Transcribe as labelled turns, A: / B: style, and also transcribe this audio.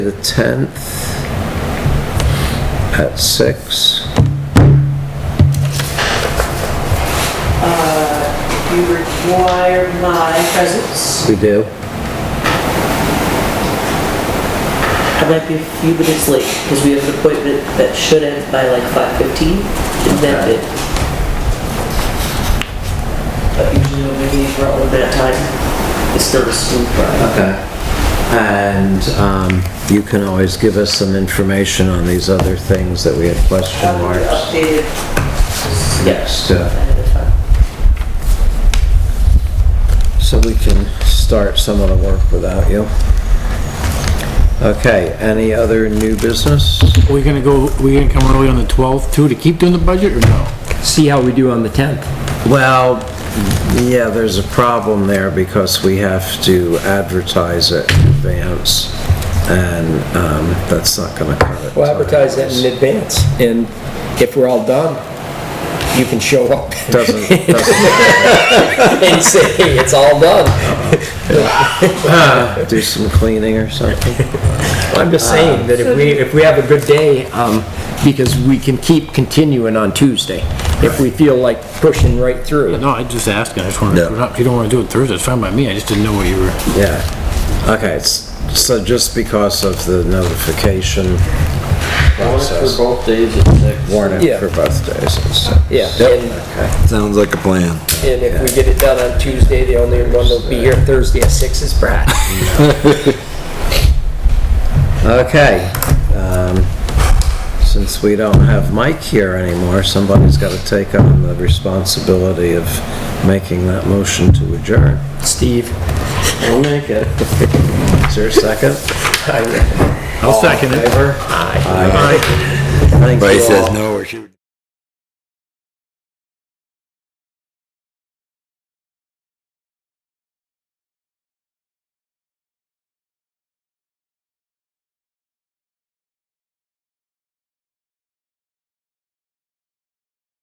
A: The 10th at 6.
B: You require my presence.
A: We do.
B: I might be a few minutes late because we have an appointment that should end by like 5:15. and then
A: Okay.
B: it. But usually when we meet for all of that time, it's not a smooth ride.
A: Okay. uh, And um, you can always give us some information on these other things that we had question
B: Probably
A: marks.
B: Updated. Yes.
A: Next, uh,
B: Ahead of time.
A: So we can start some of the work without you. Okay, any other new business?
C: We gonna go, we gonna come early on the 12th too to keep doing the budget or no?
D: see how we do on the 10th.
A: Well, yeah, there's a problem there because we have to advertise it in advance, and um, that's not going to cut it.
D: We'll advertise that in advance, and if we're all done, you can show up
A: Doesn't, doesn't
D: and say, hey, it's all done.
A: do some cleaning or something?
D: I'm
A: Uh,
D: just saying that if we, if we have a good day, um, because we can keep continuing on Tuesday, if we feel like pushing right through.
C: No, I just asking, I just wanna,
A: Yeah.
C: if you don't wanna do it Thursday, it's fine by me, I just didn't know what you were.
A: Yeah. Okay, s- so just because of the notification process.
E: both days at six.
A: Warrant it
D: Yeah.
A: for both days. and stuff.
D: Yeah, and,
A: Okay.
F: Sounds like a plan.
D: and if we get it done on Tuesday, the only one that'll be here Thursday at six is Brad.
A: Okay. um, Since we don't have Mike here anymore, somebody's got to take on the responsibility of making that motion to adjourn.
D: Steve.
E: We'll make it.
A: Is there a second?
C: I'll second it.
A: Favor? Aye. Thank you
F: Everybody
A: all.
F: says no or she.